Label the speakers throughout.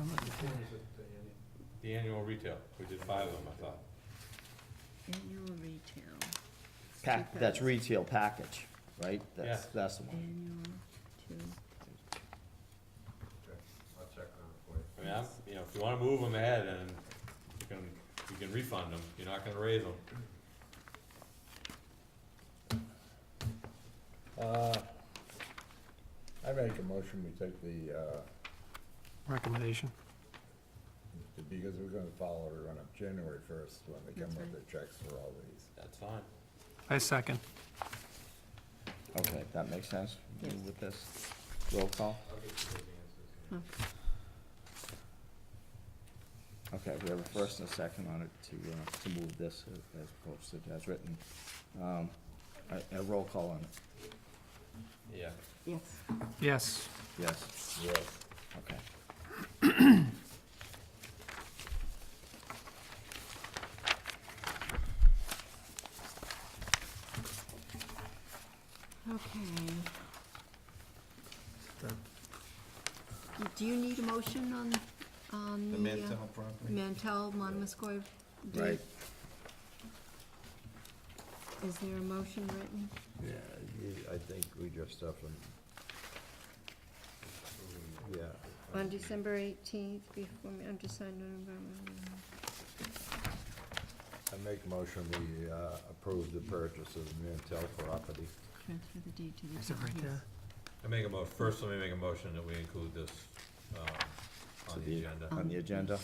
Speaker 1: When is it, Andy?
Speaker 2: The annual retail, we did five of them, I thought.
Speaker 3: Annual retail,
Speaker 4: Pack, that's retail package, right? That's,
Speaker 2: Yeah.
Speaker 4: that's the one.
Speaker 3: annual to,
Speaker 1: Okay, I'll check on it for you.
Speaker 2: I mean, I'm, you know, if you wanna move them ahead and you can, you can refund them, you're not gonna raise them.
Speaker 5: Uh, I make a motion, we take the, uh,
Speaker 6: recommendation.
Speaker 5: because we're gonna follow it on up January first when they come
Speaker 3: That's
Speaker 5: up
Speaker 3: right.
Speaker 5: with the checks for all these.
Speaker 2: That's fine.
Speaker 6: I second.
Speaker 4: Okay, that makes sense
Speaker 3: Yes.
Speaker 4: with this roll call?
Speaker 1: I'll get you those answers.
Speaker 3: oh,
Speaker 4: Okay, we have a first and a second on it to, uh, to move this as posted, as written. Um, a, a roll call on it,
Speaker 2: Yeah.
Speaker 3: yes,
Speaker 6: Yes,
Speaker 4: yes,
Speaker 5: Yes.
Speaker 4: okay.
Speaker 3: okay. Do you need a motion on, on the? Mantel property? Mantel, Monomoskoye? deed?
Speaker 4: Right.
Speaker 3: Is there a motion written?
Speaker 5: Yeah, you- I think we just have them. Yeah.
Speaker 3: On December eighteenth, before, me- undersigned, November.
Speaker 5: I make a motion, we, uh, approve the purchase of the Mantel property.
Speaker 3: Transfer the deed to the.
Speaker 6: is it right there?
Speaker 2: I make a mo, first let me make a motion that we include this, um,
Speaker 4: So
Speaker 2: on
Speaker 4: the-
Speaker 2: the agenda.
Speaker 4: On the agenda,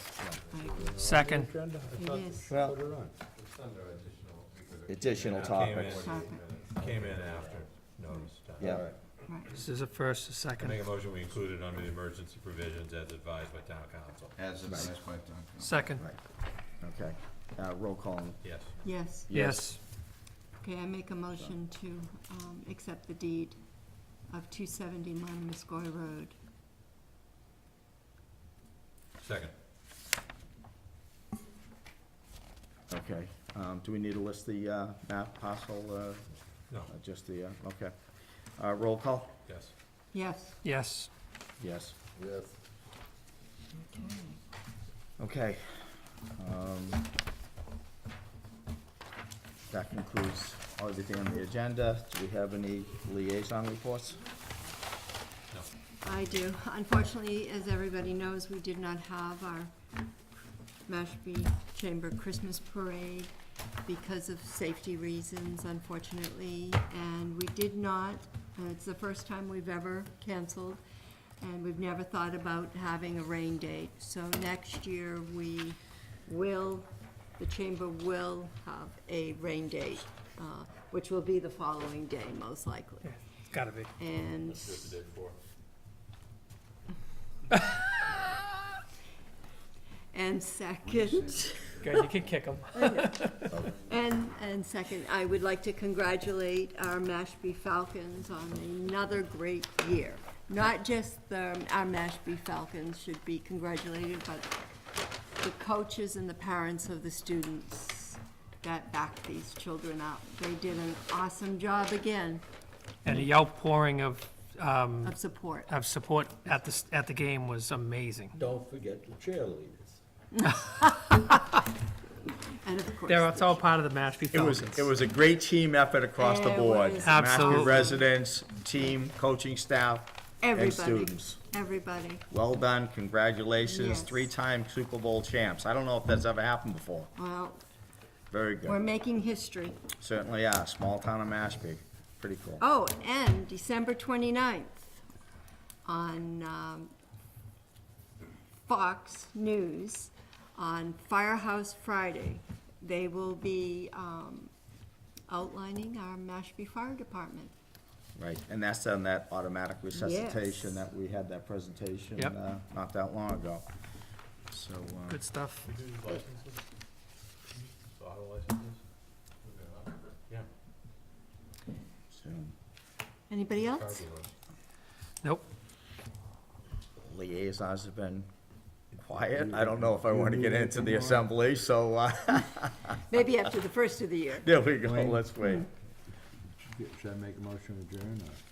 Speaker 6: Second.
Speaker 5: Is it on the agenda? I
Speaker 3: It
Speaker 5: thought
Speaker 3: is.
Speaker 5: they
Speaker 4: Well-
Speaker 5: put it on.
Speaker 1: It's under additional. because it
Speaker 4: Additional
Speaker 1: came in
Speaker 2: topics.
Speaker 1: after 48
Speaker 3: Topic.
Speaker 1: minutes.
Speaker 2: Came in after notice time.
Speaker 4: Yeah.
Speaker 5: All right.
Speaker 3: Right,
Speaker 6: This is a first, a
Speaker 2: I
Speaker 6: second.
Speaker 2: make a motion, we include it under the emergency provisions as advised by town council.
Speaker 7: As advised by Duncan.
Speaker 6: Second,
Speaker 4: okay, uh, roll call on,
Speaker 2: Yes.
Speaker 3: yes,
Speaker 6: yes.
Speaker 3: okay, I make a motion to, um, accept the deed of two seventy Monomoskoye Road.
Speaker 2: Second.
Speaker 4: okay. Um, do we need to list the, uh, map parcel, uh,
Speaker 2: No,
Speaker 4: uh, just the, uh, okay. Uh, roll call,
Speaker 2: yes.
Speaker 3: Yes.
Speaker 6: Yes,
Speaker 4: yes.
Speaker 5: Yes,
Speaker 4: Okay. um, That concludes everything on the agenda. Do we have any liaison reports?
Speaker 2: No.
Speaker 3: I do. Unfortunately, as everybody knows, we did not have our Mashpee Chamber Christmas Parade because of safety reasons, unfortunately, and we did not, and it's the first time we've ever canceled, and we've never thought about having a rain date. So next year, we will, the chamber will have a rain date, uh, which will be the following day, most likely.
Speaker 6: Yeah, it's gotta be.
Speaker 3: And
Speaker 2: Let's do it the day before.
Speaker 3: And second,
Speaker 6: Good, you can kick them.
Speaker 3: and, and second, I would like to congratulate our Mashpee Falcons on another great year. Not just the, our Mashpee Falcons should be congratulated, but the coaches and the parents of the students that backed these children up. They did an awesome job again
Speaker 6: And the outpouring of, um,
Speaker 3: of support.
Speaker 6: of support at the, s- at the game was amazing.
Speaker 5: don't forget the cheerleaders.
Speaker 3: And of course,
Speaker 6: There, it's all part of the Mashpee
Speaker 4: It was,
Speaker 6: Falcons.
Speaker 4: it was a great team effort across the
Speaker 3: It
Speaker 4: board.
Speaker 3: was
Speaker 6: Absolutely.
Speaker 4: Mashpee residents, team, coaching staff, and
Speaker 3: everybody,
Speaker 4: students.
Speaker 3: everybody.
Speaker 4: Well done, congratulations,
Speaker 3: Yes.
Speaker 4: three-time Super Bowl champs. I don't know if that's ever happened before.
Speaker 3: Well,
Speaker 4: Very
Speaker 3: we're
Speaker 4: good.
Speaker 3: making history.
Speaker 4: Certainly are, small town of Mashpee. Pretty cool.
Speaker 3: Oh, and December 29th on um, Fox News, on Firehouse Friday, they will be um, outlining our Mashpee Fire Department.
Speaker 4: Right, and that's on that automatic
Speaker 3: Yes.
Speaker 4: resuscitation that we had that presentation,
Speaker 6: Yep.
Speaker 4: uh, not that long ago. So, uh,
Speaker 6: Good stuff.
Speaker 2: We do licenses? Auto licenses? Yeah.
Speaker 4: so
Speaker 3: Anybody
Speaker 2: Cards
Speaker 3: else?
Speaker 2: are on.
Speaker 6: Nope.
Speaker 4: liaisons have been quiet. I don't know if I wanna get into the assembly, so, uh,
Speaker 3: Maybe after the first of the year.
Speaker 4: there we go, let's wait.
Speaker 5: Should I make a motion adjourn or?